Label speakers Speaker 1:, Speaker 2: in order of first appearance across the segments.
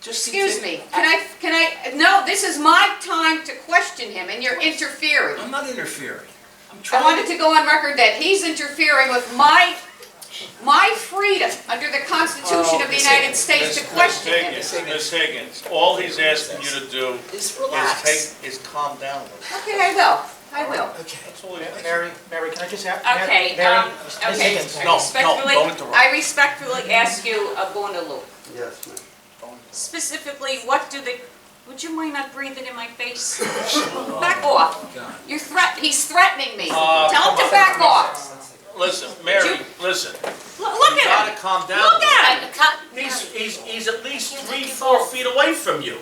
Speaker 1: Just
Speaker 2: Excuse me, can I, can I, no, this is my time to question him and you're interfering.
Speaker 1: I'm not interfering. I'm
Speaker 2: I
Speaker 1: trying
Speaker 2: wanted
Speaker 1: to.
Speaker 2: to go on record that he's interfering with my, my freedom under the Constitution of the United States to question him.
Speaker 3: Ms. Higgins, Ms. Higgins, all he's asking you to do
Speaker 1: Just
Speaker 3: is
Speaker 1: relax.
Speaker 3: take, is calm down a little.
Speaker 2: Okay, I will, I will.
Speaker 1: Okay.
Speaker 3: That's all he's asking.
Speaker 4: Mary, Mary, can I just have?
Speaker 2: Okay,
Speaker 4: Mary-
Speaker 2: um,
Speaker 4: Ms.
Speaker 2: okay.
Speaker 4: Higgins,
Speaker 3: No,
Speaker 2: Respectfully,
Speaker 3: don't interrupt.
Speaker 2: I respectfully ask you, Abundalu,
Speaker 5: Yes, ma'am.
Speaker 2: specifically, what do the, would you mind not breathing in my face? Back off. You're threat, he's threatening me.
Speaker 3: Uh,
Speaker 2: Tell him to back off.
Speaker 3: Listen, Mary, listen,
Speaker 2: L-
Speaker 3: you
Speaker 2: Look at
Speaker 3: gotta
Speaker 2: him.
Speaker 3: calm down.
Speaker 2: Look at him.
Speaker 3: He's, he's, he's at least three, four feet away from you.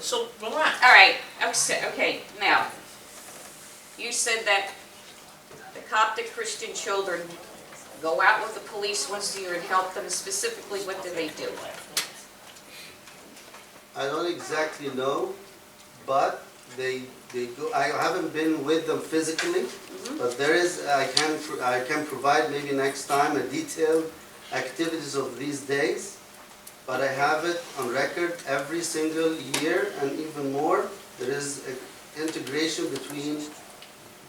Speaker 3: So relax.
Speaker 2: All right, okay, okay, now, you said that the Coptic Christian children go out with the police once a year and help them specifically, what do they do?
Speaker 5: I don't exactly know, but they, they go, I haven't been with them physically,
Speaker 2: Mm-hmm.
Speaker 5: but there is, I can, pro- I can provide maybe next time a detailed activities of these days, but I have it on record every single year and even more. There is a integration between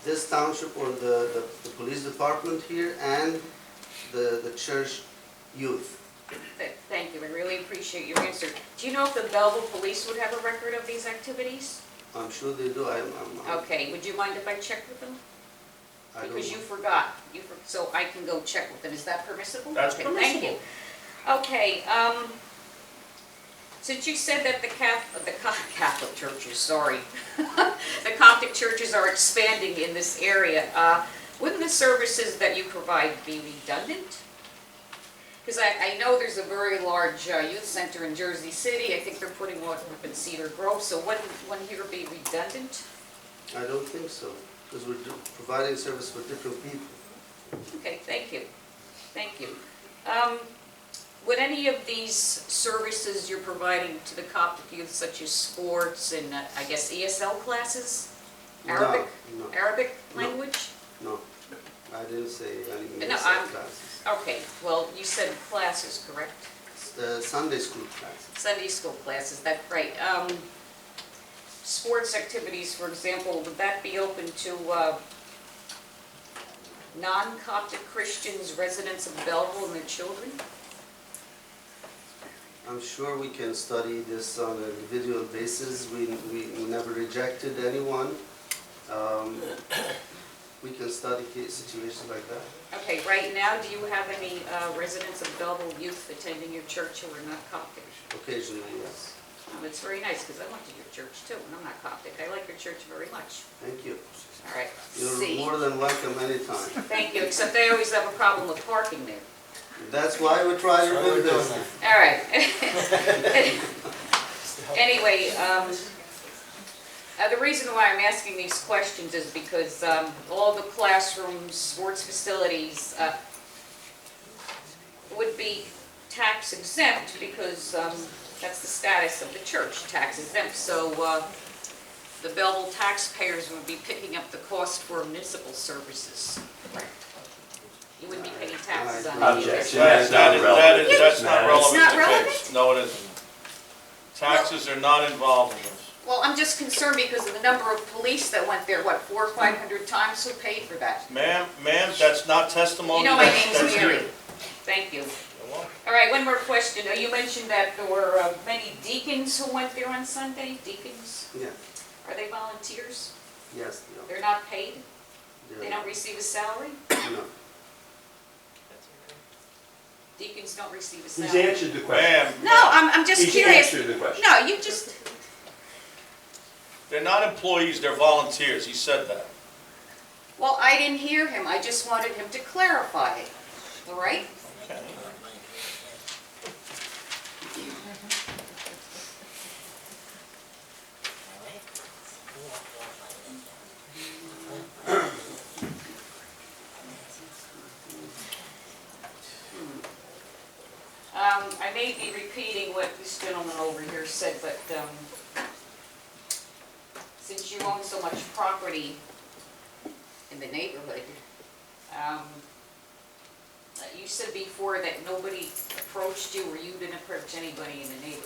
Speaker 5: this township or the, the, the police department here and the, the church youth.
Speaker 2: Th- Thank you, I really appreciate your answer. Do you know if the Belleville Police would have a record of these activities?
Speaker 5: I'm sure they do, I'm, I'm- I'm.
Speaker 2: Okay, would you mind if I check with them?
Speaker 5: I don't
Speaker 2: Because you
Speaker 5: know.
Speaker 2: forgot, you, for- so I can go check with them, is that permissible?
Speaker 3: That's
Speaker 2: Okay, thank you. Okay, um, since you said that the Catholic, the Co- Catholic churches, sorry, the Coptic churches are expanding in this area, uh, wouldn't the services that you provide be redundant? Because I, I know there's a very large uh, youth center in Jersey City, I think they're putting one up in Cedar Grove, so wouldn't one here be redundant?
Speaker 5: I don't think so, because we're do- providing service for different people.
Speaker 2: Okay, thank you, thank you. Um, Would any of these services you're providing to the Coptic youth, such as sports and, uh, I guess, ESL classes?
Speaker 5: No,
Speaker 2: Arabic,
Speaker 5: no.
Speaker 2: Arabic
Speaker 5: No.
Speaker 2: language?
Speaker 5: No, I didn't say any
Speaker 2: No,
Speaker 5: music
Speaker 2: I'm-
Speaker 5: classes.
Speaker 2: Okay, well, you said classes, correct?
Speaker 5: S- uh, Sunday school classes.
Speaker 2: Sunday school classes, that's right. Um, Sports activities, for example, would that be open to uh, non-Coptic Christians, residents of Belleville and their children?
Speaker 5: I'm sure we can study this on an individual basis. We, we we never rejected anyone. Um, We can study ca- situations like that.
Speaker 2: Okay, right now, do you have any uh, residents of Belleville youth attending your church who are not Coptic?
Speaker 5: Occasionally, yes.
Speaker 2: Um, It's very nice, because I went to your church too, and I'm not Coptic. I like your church very much.
Speaker 5: Thank you.
Speaker 2: All right,
Speaker 5: You're
Speaker 2: C.
Speaker 5: more than welcome anytime.
Speaker 2: Thank you, except they always have a problem with parking there.
Speaker 5: That's why we try to do this.
Speaker 2: All right. Anyway, um, uh, the reason why I'm asking these questions is because um, all the classrooms, sports facilities uh, would be tax exempt because um, that's the status of the church, tax exempt. So uh, the Belleville taxpayers would be picking up the cost for municipal services. You wouldn't be paying taxes on any of it.
Speaker 5: Objection.
Speaker 3: That- that is- that is- That's not
Speaker 2: It's
Speaker 3: relevant
Speaker 2: not
Speaker 3: to the case.
Speaker 2: relevant?
Speaker 3: No, it isn't. Taxes are not involved in this.
Speaker 2: Well, I'm just concerned because of the number of police that went there, what, four or five hundred times, who paid for that?
Speaker 3: Ma'am, ma'am, that's not testimony.
Speaker 2: You know my
Speaker 3: That's-
Speaker 2: name's
Speaker 3: that's
Speaker 2: Mary.
Speaker 3: you.
Speaker 2: Thank you. All right, one more question. Uh, You mentioned that there were uh, many deacons who went there on Sunday, deacons,
Speaker 5: Yeah,
Speaker 2: are they volunteers?
Speaker 5: yes, no,
Speaker 2: They're not paid? They
Speaker 5: there-
Speaker 2: don't receive a salary?
Speaker 5: no.
Speaker 2: Deacons don't receive a
Speaker 6: He's
Speaker 2: salary?
Speaker 6: answered the question.
Speaker 3: Ma'am,
Speaker 2: No, I'm, I'm just
Speaker 6: He's
Speaker 2: curious.
Speaker 6: answered the question.
Speaker 2: No, you just,
Speaker 3: they're not employees, they're volunteers, he said that.
Speaker 2: well, I didn't hear him, I just wanted him to clarify it, all right?
Speaker 3: Okay.
Speaker 2: Um, I may be repeating what this gentleman over here said, but, um, since you own so much property in the neighborhood, um, uh, you said before that nobody approached you or you didn't approach anybody in the neighborhood.